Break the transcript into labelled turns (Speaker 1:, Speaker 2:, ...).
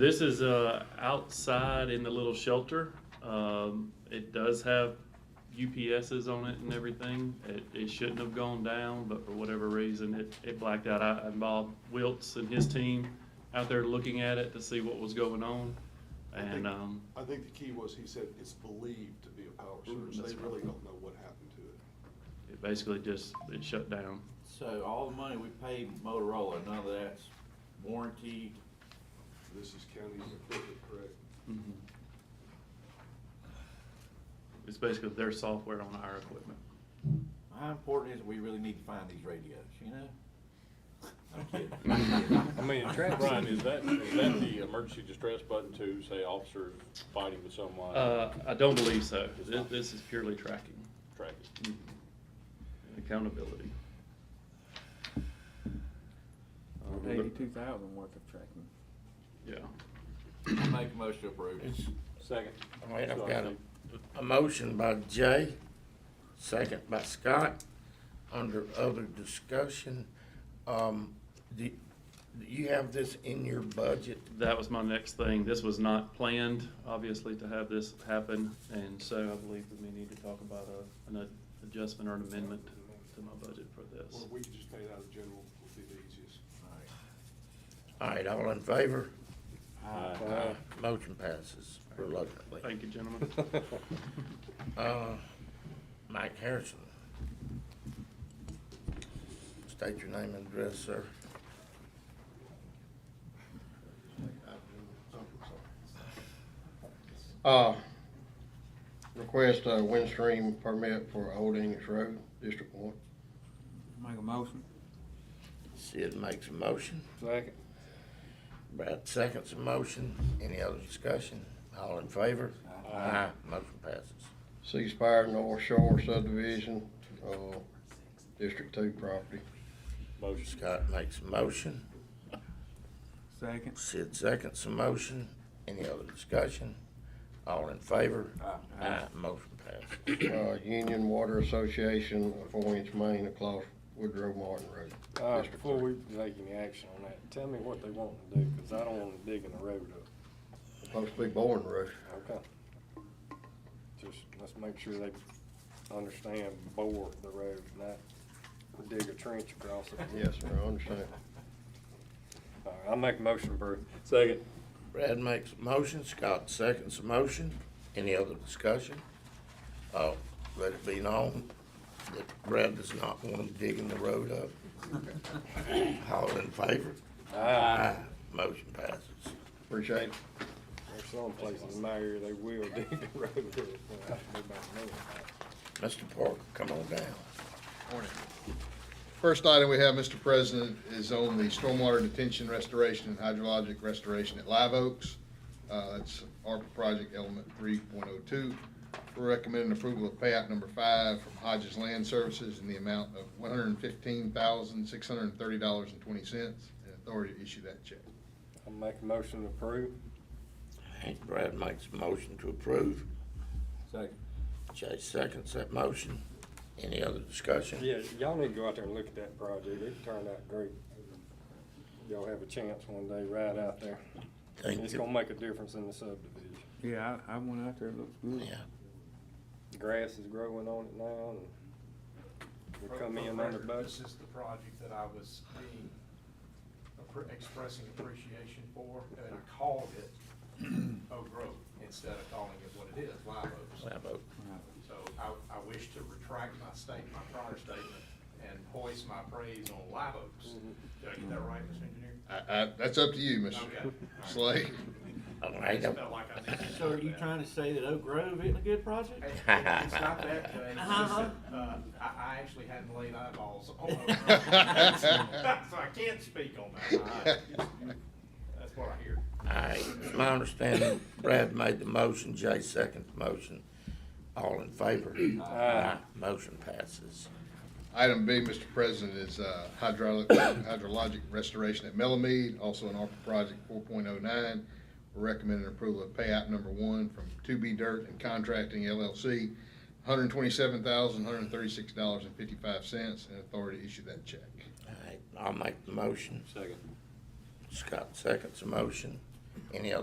Speaker 1: This is uh, outside in the little shelter. Um, It does have UPSs on it and everything. It, it shouldn't have gone down, but for whatever reason, it, it blacked out. I involved Wiltz and his team out there looking at it to see what was going on.
Speaker 2: I think-
Speaker 1: And, um,
Speaker 2: I think the key was, he said it's believed to be a power
Speaker 1: Mm,
Speaker 2: surge,
Speaker 1: that's
Speaker 2: they
Speaker 1: right.
Speaker 2: really don't know what happened to it.
Speaker 1: it basically just, it shut down.
Speaker 3: So all the money we paid Motorola, none of that's warranty.
Speaker 2: This is county's equipment, correct?
Speaker 1: Mhm. It's basically their software on our equipment.
Speaker 3: How important is it we really need to find these radios, you know? I'm kidding. I'm kidding.
Speaker 4: I mean, Brian, is that, is that the emergency distress button to say officers fighting with someone?
Speaker 1: Uh, I don't believe so. This, this is purely tracking
Speaker 4: Track it.
Speaker 1: Mhm. accountability. Um, the-
Speaker 5: Eighty-two thousand worth of tracking.
Speaker 1: Yeah.
Speaker 3: Make a motion to approve.
Speaker 6: It's,
Speaker 4: Second.
Speaker 6: all right, I've
Speaker 4: Sorry,
Speaker 6: got a,
Speaker 4: Steve.
Speaker 6: a motion by Jay, second by Scott, under other discussion. Um, do, do you have this in your budget?
Speaker 1: That was my next thing. This was not planned, obviously, to have this happen, and so I believe that we need to talk about a, an adjustment or an amendment to my budget for
Speaker 2: Or
Speaker 1: this.
Speaker 2: we could just pay it out of general, would be the easiest.
Speaker 6: All right, all in favor?
Speaker 4: Aye.
Speaker 6: Uh, Motion passes reluctantly.
Speaker 1: Thank you, gentlemen.
Speaker 6: Uh, Mike Harrison. State your name and address, sir.
Speaker 7: Uh, request a windstream permit for Old English Road, District One.
Speaker 5: Make a motion.
Speaker 6: Sid makes a motion.
Speaker 4: Second.
Speaker 6: Brad seconds the motion. Any other discussion? All in favor? Aye. Motion passes.
Speaker 7: Ceasefire North Shore subdivision, uh, District Two property.
Speaker 4: Motion.
Speaker 6: Scott makes a motion.
Speaker 5: Second.
Speaker 6: Sid seconds the motion. Any other discussion? All in favor?
Speaker 3: Aye.
Speaker 6: Aye. Motion passes.
Speaker 7: Uh, Union Water Association, a four-inch main across Woodrow Martin Road.
Speaker 8: Uh,
Speaker 7: District
Speaker 8: before
Speaker 7: Three.
Speaker 8: we take any action on that, tell me what they want to do, cause I don't wanna dig in the road up,
Speaker 7: Supposed to be Bourne Road.
Speaker 8: okay? Just, let's make sure they understand bore the road, not dig a trench across it.
Speaker 7: Yes, sir, I understand.
Speaker 8: All right, I'll make a motion, Bert.
Speaker 4: Second.
Speaker 6: Brad makes a motion. Scott seconds the motion. Any other discussion? Uh, let it be known that Brad does not want to dig in the road up. All in favor?
Speaker 8: Aye.
Speaker 6: Aye. Motion passes.
Speaker 7: Appreciate it.
Speaker 8: There's some places in my area, they will dig the road up, and I don't know about none.
Speaker 6: Mr. Parker, come on down.
Speaker 9: First item we have, Mr. President, is on the stormwater detention restoration and hydrologic restoration at Live Oaks. Uh, That's ARPA project element three point oh two. We're recommending approval of payout number five from Hodges Land Services in the amount of one hundred and fifteen thousand, six hundred and thirty dollars and twenty cents, and authority to issue that check.
Speaker 8: I'll make a motion to approve.
Speaker 6: Hank Brad makes a motion to approve.
Speaker 3: Second.
Speaker 6: Jay seconds that motion. Any other discussion?
Speaker 8: Yeah, y'all need to go out there and look at that project, it turned out great. Y'all have a chance one day, right out there.
Speaker 6: Think
Speaker 8: It's
Speaker 6: that-
Speaker 8: gonna make a difference in the subdivision.
Speaker 5: Yeah, I, I went out there, it looks good.
Speaker 6: Yeah,
Speaker 8: grass is growing on it now and we come in
Speaker 10: For
Speaker 8: under
Speaker 10: record, This
Speaker 8: budget.
Speaker 10: is the project that I was being, appre- expressing appreciation for, and I called it Oak Grove instead of calling it what it is, Live Oaks.
Speaker 6: I vote.
Speaker 10: So I, I wish to retract my state, my prior statement, and hoist my praise on Live Oaks.
Speaker 8: Mm-hmm.
Speaker 10: Did I get that right, Mr. Engineer?
Speaker 9: I, I, that's up to you,
Speaker 10: Okay. all
Speaker 9: Mr.
Speaker 10: right.
Speaker 9: Slade.
Speaker 6: All
Speaker 10: I
Speaker 6: right,
Speaker 10: just
Speaker 6: uh,
Speaker 10: felt like I needed to
Speaker 3: So are
Speaker 10: do
Speaker 3: you
Speaker 10: that.
Speaker 3: trying to say that Oak Grove isn't a good project?
Speaker 10: It- It's not that, Jay, it's just that, uh, I, I actually hadn't laid eyeballs on it. So I can't speak on that. That's what I hear.
Speaker 6: I, it's my understanding Brad made the motion, Jay seconds the motion. All in favor? Aye. Motion passes.
Speaker 9: Item B, Mr. President, is uh, hydraulic, hydrologic restoration at Melamie, also an ARPA project four point oh nine. We're recommending approval of payout number one from Two B Dirt and Contracting LLC, one hundred and twenty-seven thousand, one hundred and thirty-six dollars and fifty-five cents, and authority to issue that check.
Speaker 6: All right, I'll make the motion.
Speaker 4: Second.
Speaker 6: Scott seconds the motion. Any other